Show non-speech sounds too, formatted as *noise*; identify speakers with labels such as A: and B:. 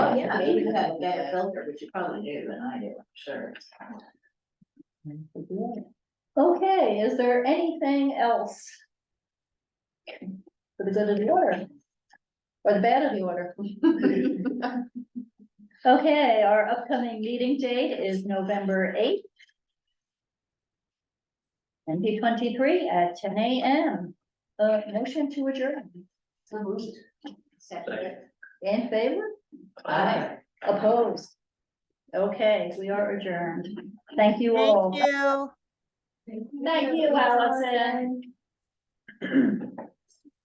A: maybe you have a better filter, which you probably do than I do, I'm *laughs* sure.
B: Okay, is there anything else? For the good of the order? Or the bad of the order? *laughs* Okay, our upcoming meeting date is November eighth. Twenty twenty-three at ten AM. Uh, motion to adjourn.
A: So moved. Second.
B: In favor? Opposed? Okay, we are adjourned. Thank you all.
C: Thank you.
B: Thank you, Allison.